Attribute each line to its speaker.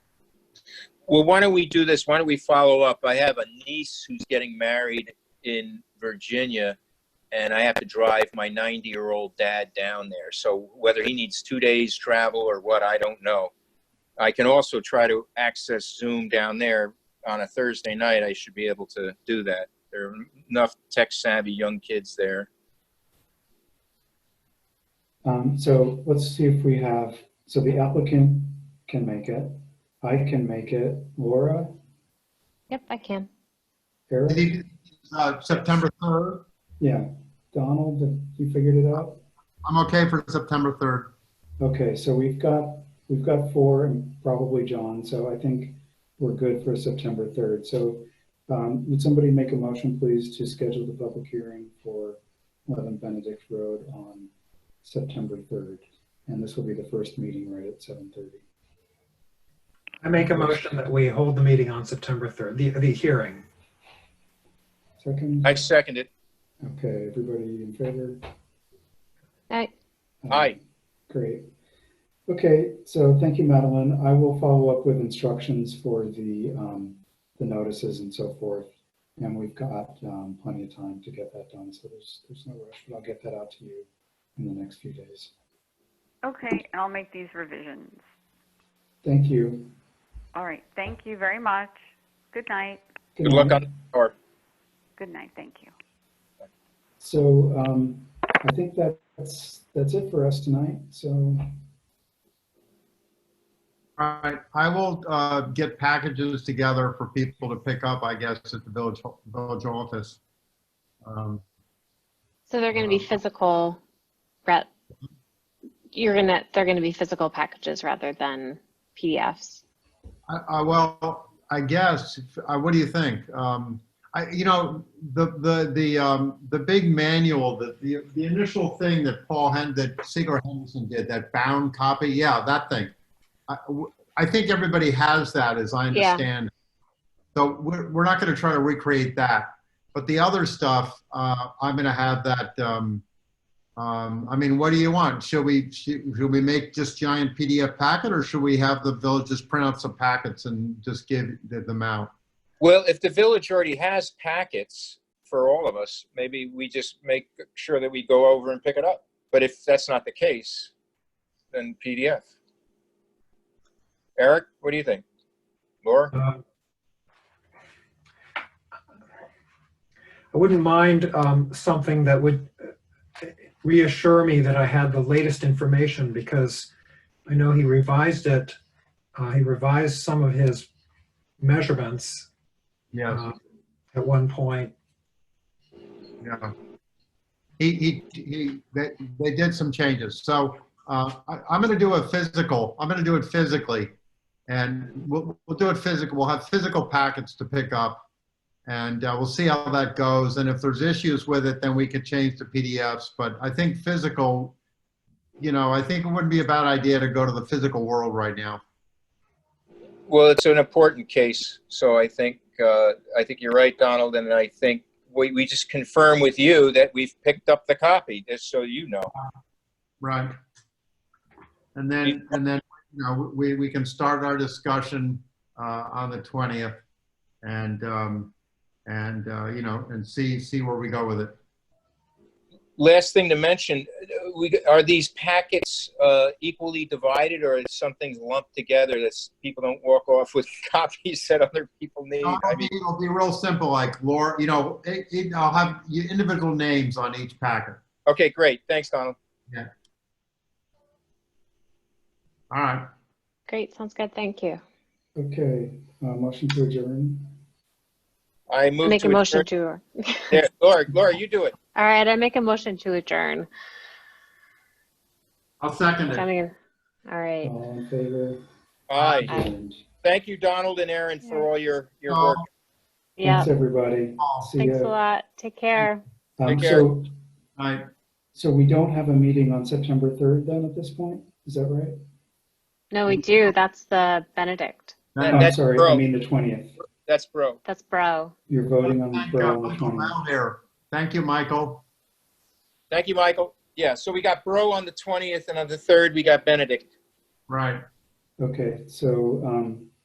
Speaker 1: Well, why don't we do this? Why don't we follow up? I have a niece who's getting married in Virginia, and I have to drive my 90-year-old dad down there. So whether he needs two days travel or what, I don't know. I can also try to access Zoom down there on a Thursday night. I should be able to do that. There are enough tech-savvy young kids there.
Speaker 2: Um, so let's see if we have, so the applicant can make it. I can make it. Laura,
Speaker 3: Yep, I can.
Speaker 4: I
Speaker 2: Eric,
Speaker 4: think it's, uh, September 3rd.
Speaker 2: yeah. Donald, have you figured it out?
Speaker 4: I'm okay for September 3rd.
Speaker 2: Okay, so we've got, we've got four and probably John, so I think we're good for September 3rd. So um, would somebody make a motion, please, to schedule the public hearing for 11 Benedict Road on September 3rd? And this will be the first meeting right at 7:30.
Speaker 5: I make a motion that we hold the meeting on September 3rd, the, the hearing.
Speaker 2: Second?
Speaker 1: I second it.
Speaker 2: Okay, everybody in favor?
Speaker 3: I,
Speaker 2: Um,
Speaker 1: Aye.
Speaker 2: Great. Okay, so thank you, Madeline. I will follow up with instructions for the, um, the notices and so forth. And we've got, um, plenty of time to get that done, so there's, there's no rush, but I'll get that out to you in the next few days.
Speaker 6: Okay, I'll make these revisions.
Speaker 2: Thank you.
Speaker 6: All right, thank you very much. Good night.
Speaker 1: Good luck
Speaker 2: night.
Speaker 1: on, or
Speaker 6: Good night, thank you.
Speaker 2: So, um, I think that's, that's it for us tonight, so,
Speaker 4: All right, I will uh, get packages together for people to pick up, I guess, at the village, village office. Um,
Speaker 3: so they're going to be physical, Brett. You're going to, they're going to be physical packages rather than PDFs.
Speaker 4: I, I, well, I guess, I, uh, what do you think? Um, I, you know, the, the, the, um, the big manual, the, the, the initial thing that Paul Hen, that Siegler Henderson did, that bound copy, yeah, that thing. I, w- I think everybody has that, as I
Speaker 3: Yeah.
Speaker 4: understand. So we're, we're not gonna try to recreate that, but the other stuff, uh, I'm gonna have that, um, um, I mean, what do you want? Should we, should should we make just giant PDF packet or should we have the village just print out some packets and just give them out?
Speaker 1: Well, if the village already has packets for all of us, maybe we just make sure that we go over and pick it up. But if that's not the case, then PDF. Eric, what do you think? Laura?
Speaker 5: Uh, I wouldn't mind um, something that would uh, reassure me that I had the latest information because I know he revised it. Uh, He revised some of his measurements
Speaker 4: Yes.
Speaker 5: uh, at one point.
Speaker 4: Yeah. He, he, he, they, they did some changes. So, uh, I, I'm gonna do a physical, I'm gonna do it physically. And we'll, we'll do it physical, we'll have physical packets to pick up. And, uh, we'll see how that goes. And if there's issues with it, then we could change to PDFs. But I think physical, you know, I think it wouldn't be a bad idea to go to the physical world right now.
Speaker 1: Well, it's an important case, so I think, uh, I think you're right, Donald, and I think we, we just confirm with you that we've picked up the copy, just so you know.
Speaker 4: Right. And then, and then, you know, we, we can start our discussion uh, on the 20th and, um, and, uh, you know, and see, see where we go with it.
Speaker 1: Last thing to mention, uh, we, are these packets, uh, equally divided, or is something lumped together that people don't walk off with copies that other people need? I
Speaker 4: It'll be,
Speaker 1: mean,
Speaker 4: it'll be real simple, like Laura, you know, it, it, I'll have your individual names on each packet.
Speaker 1: okay, great, thanks, Donald.
Speaker 4: All right.
Speaker 3: Great, sounds good, thank you.
Speaker 2: okay, uh, motion to adjourn.
Speaker 1: I move to.
Speaker 3: Make a motion
Speaker 1: adjourn-
Speaker 3: to, all
Speaker 1: Yeah, Laura, Laura, you do it.
Speaker 3: right, I make a motion to adjourn.
Speaker 4: I'll second
Speaker 3: I
Speaker 4: it.
Speaker 3: mean, all right.
Speaker 2: All in favor?
Speaker 1: Aye,
Speaker 3: Aye.
Speaker 2: Adjourned.
Speaker 1: thank you, Donald and Aaron, for all your, your work.
Speaker 3: Yeah,
Speaker 2: Thanks, everybody. See
Speaker 3: thanks a
Speaker 2: ya.
Speaker 3: lot. Take care.
Speaker 2: Um,
Speaker 1: Take care.
Speaker 2: So,
Speaker 4: All right.
Speaker 2: so we don't have a meeting on September 3rd then at this point? Is that right?
Speaker 3: No, we do. That's the Benedict.
Speaker 1: That-
Speaker 2: I'm
Speaker 1: Uh, that's
Speaker 2: sorry, I
Speaker 1: broke.
Speaker 2: mean the 20th.
Speaker 1: That's bro.
Speaker 3: That's Bro.
Speaker 2: You're voting on
Speaker 4: Thank
Speaker 2: Borough on
Speaker 4: you,
Speaker 2: the
Speaker 4: Michael
Speaker 2: 20th.
Speaker 4: Brown here. Thank you, Michael.
Speaker 1: Thank you, Michael. Yeah, so we got Bro on the 20th, and on the 3rd, we got Benedict.
Speaker 4: Right.
Speaker 2: Okay, so, um,